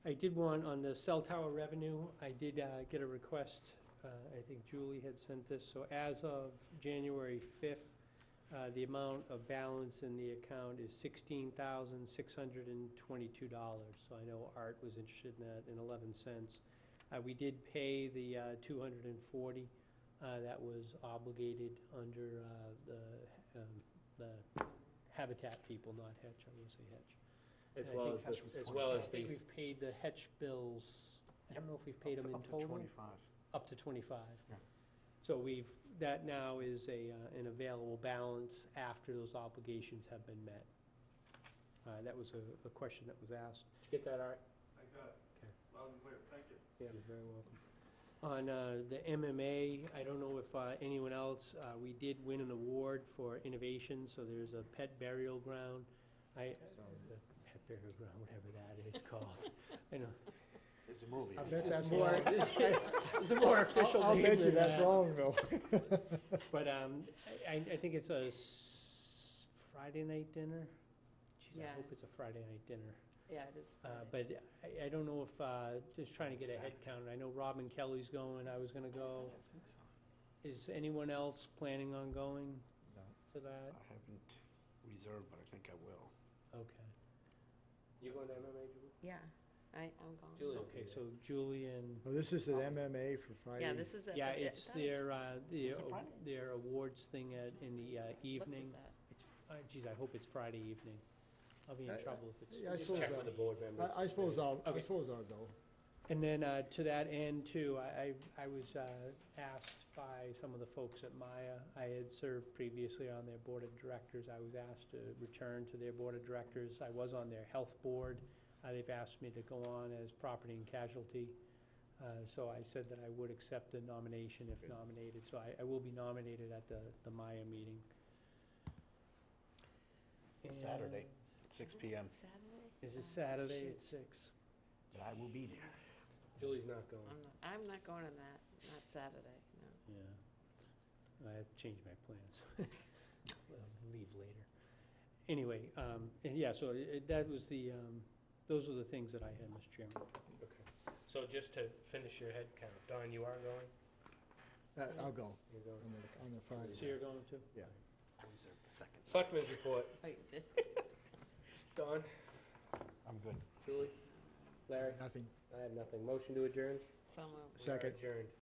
did one on the cell tower revenue. I did uh, get a request, uh, I think Julie had sent this, so as of January 5th, uh, the amount of balance in the account is $16,622. So I know Art was interested in that, in 11 cents. Uh, We did pay the uh, 240 uh, that was obligated under uh, the um, the Habitat people, not Hetch, I won't say Hetch. As I well think as, Hatch was the- as well as I think the, we've paid the Hetch bills, I don't know if we've paid them in total. twenty-five. Up to twenty-five. Yeah. So we've, that now is a, uh, an available balance after those obligations have been met. Uh, that was a, a question that was asked. did you get that, Art? I got it. Okay. Loud and clear, thank you. Yeah. You're very welcome. On uh, the MMA, I don't know if uh, anyone else, uh, we did win an award for innovation, so there's a pet burial ground. I, the pet burial ground, whatever that is called. I know. There's a movie. I bet There's that's more, wrong. there's a more official I'll name bet you than that's that. wrong, though. But um, I, I- I think it's a s- Friday night dinner. Jeez, I Yeah. hope it's a Friday night dinner. Yeah, it is Uh, Friday. But I, I don't know if, uh, just trying to get a head count. I know Robin Kelly's going, I was gonna go. Is anyone else planning on going No. to that? I haven't reserved, but I think I will. Okay. You going to MMA, Julie? Yeah, I, I'm gone. Julie will Okay, be there. so Julie and, Well, this is the MMA for Friday. Yeah, this is. a- yeah, but it- it's that is- their, uh, the, Is it o- Friday? their awards thing at, in the uh, looked at evening. that. It's, uh, geez, I hope it's Friday evening. I'll be in I- I- trouble if it's. yeah, I Just check suppose with the I- board members. I, I suppose I'll, I Okay. suppose I'll go. And then uh, to that end too, I, I I was uh, asked by some of the folks at Maya, I had served previously on their board of directors. I was asked to return to their board of directors. I was on their health board. Uh, They've asked me to go on as property and casualty. Uh, So I said that I would accept the nomination if Good. nominated. So I, I will be nominated at the, the Maya meeting. Saturday. And- At six PM, Saturday? Is Oh, it Saturday shoot. at six? but I will be there. Julie's not going. I'm not, I'm not going on that, not Saturday, no. Yeah. I have changed my plans. I'll Leave later. Anyway, um, and yeah, so i- i- that was the, um, those are the things that I had, Mr. Chairman. Okay. So just to finish your head count, Don, you are going? I- Uh, I'll go You're going. on the, on the Friday. So you're going to? Yeah. I reserved the second. Selectmen's report. Oh, you did? Don, I'm good. Julie, Larry, Nothing. I have nothing. Motion to adjourn? So moved. We are Second. Adjourned.